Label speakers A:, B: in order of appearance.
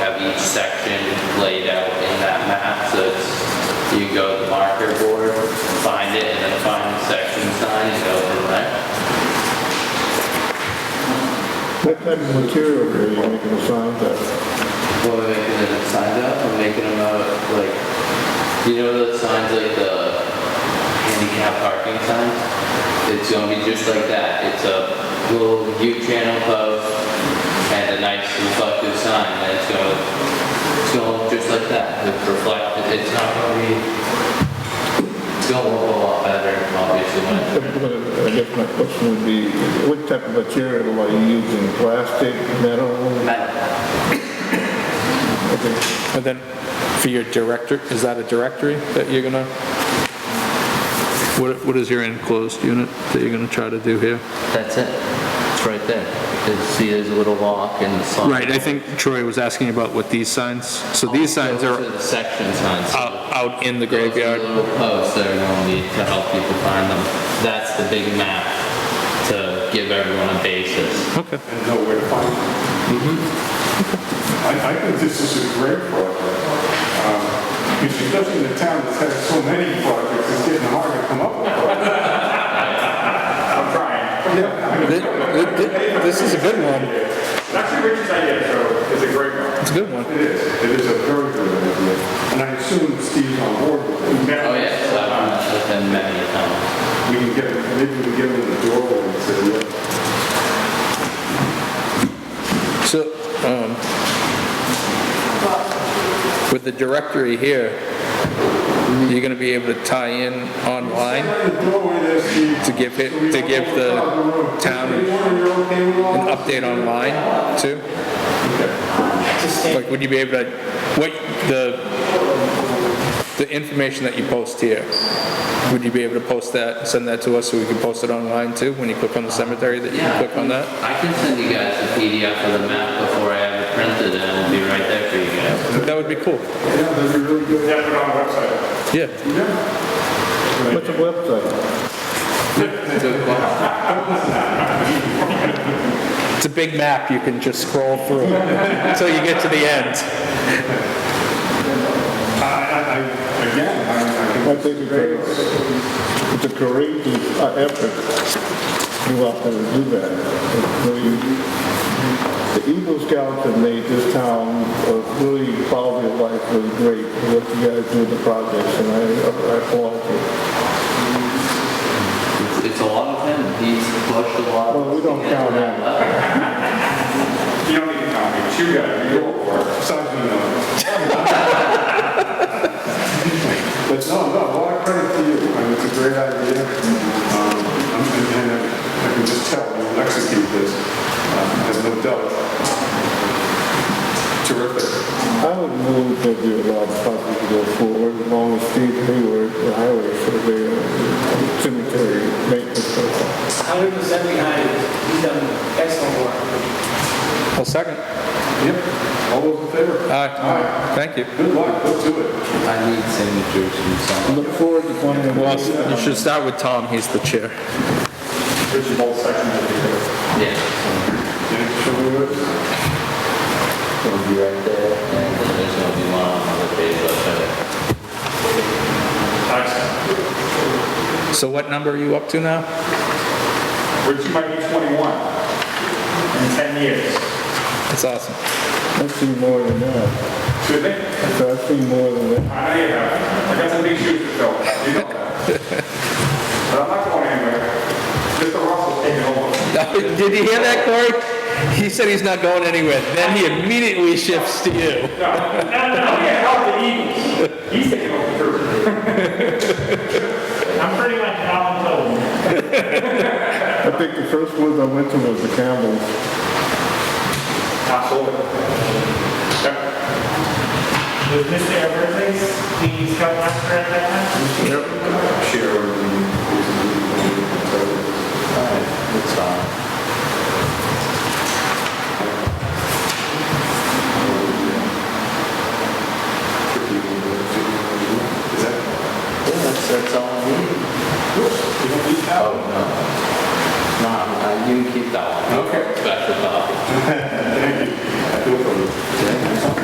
A: each section laid out in that map, so it's, you go to the marker board, find it, and then find the section sign, and go from there.
B: What type of material are you making the signs out of?
A: What we're making the signs out, we're making them out of, like, you know those signs like the handicap parking signs? It's gonna be just like that, it's a little U channel post and a nice reflective sign, and it's gonna, it's gonna look just like that, it's reflective, it's not gonna be, it's gonna look a lot better, obviously, when it's
B: I guess my question would be, what type of material are you using, plastic, metal?
A: metal.
B: Okay.
C: And then for your director, is that a directory that you're gonna? What, what is your enclosed unit that you're gonna try to do here?
A: That's it, it's right there, you see there's a little lock in the sign.
C: Right, I think Troy was asking about what these signs, so these signs
A: Those
C: are Oh.
A: the section signs. so
C: out, out in the
A: Those are
C: graveyard.
A: Little posts that are going to need to help people find them. That's the big map to give everyone a basis.
C: Okay.
D: and know where to find them.
C: Mm-hmm.
D: I, I think this is a great project. Um, If it doesn't, the town that's had so many projects, it's getting hard to come up with.
E: I'm trying.
C: This is a good one.
E: It's actually Richard's idea, so it's a great one.
C: It's a good one.
D: It is, it is a very good idea, and I assume Steve's on board with it.
A: Oh, yeah, so I've done that with them many a time.
D: We can get, maybe we can get him in the doorway and say, yeah.
C: So, um, with the directory here, you're gonna be able to tie in online
D: In the doorway there, Steve.
C: to give it, to give the town
D: Hey, Warren, you're okay with all
C: an
D: that?
C: update online too? Like, would you be able to, what, the, the information that you post here, would you be able to post that, send that to us so we can post it online too? When you click on the cemetery, that you
A: Yeah.
C: can click on that?
A: I can send you guys a PDF of the map before I have it printed and it'll be right there for you guys.
C: That would be cool.
D: Yeah, that'd be really good.
E: Yeah, put it on the website.
C: Yeah.
B: What's the website?
C: It's a big map, you can just scroll through until you get to the end.
D: I, I, I, again, I, I can.
B: I think it's a, it's a courageous uh, effort you all have to do that. It's really- The Eagle Scouts have made this town a really quality of life really great, what you guys do with the projects, and I, I applaud you.
A: It's- It's a lot of him, he's pushed a lot.
B: Well, we don't count him.
E: You don't need to tell me, it's you guys, you go for it.
D: Besides me, no. But no, no, a lot of credit to you, I mean, it's a great idea. Um, I'm- And and I can just tell, you'll execute this, um, there's no doubt. Terrific.
B: I would move that we allow the project to go forward as long as Steve Hayward, the highway surveyor, cemetery maintenance. person.
F: hundred percent behind it. He's done excellent work.
C: Well, second.
D: Yep, all those in favor?
C: Aye. Thank you.
D: Good luck, go do it.
A: I need signatures from
B: I
A: someone.
B: Look forward to finding out.
C: Well, you should start with Tom, he's the chair.
E: Richard's whole section will be there.
A: Yeah.
D: Yeah, show me yours.
A: It'll be right there. And then there's going to be one on the page, I'll show you.
E: Excellent.
C: So what number are you up to now?
E: Richard might be 21 in 10 years.
C: That's awesome.
B: I've seen more than that.
E: Should they?
B: So I've seen more than that.
E: I know you have. I got some big shoes to fill. You know that. But I'm not going anywhere. Mr. Russell's taking over.
C: Did you hear that, Corey? He said he's not going anywhere. Then he immediately shifts to you.
E: No, no, no, we can't help the Eagles. He's taking over the crew.
G: I'm pretty much Alan Cole.
B: I think the first ones I went to was the Campbells.
E: Absolutely. Yep.
G: Was Mr. Everglades the scout master at that time?
D: Share. everything.
A: Alright, that's fine.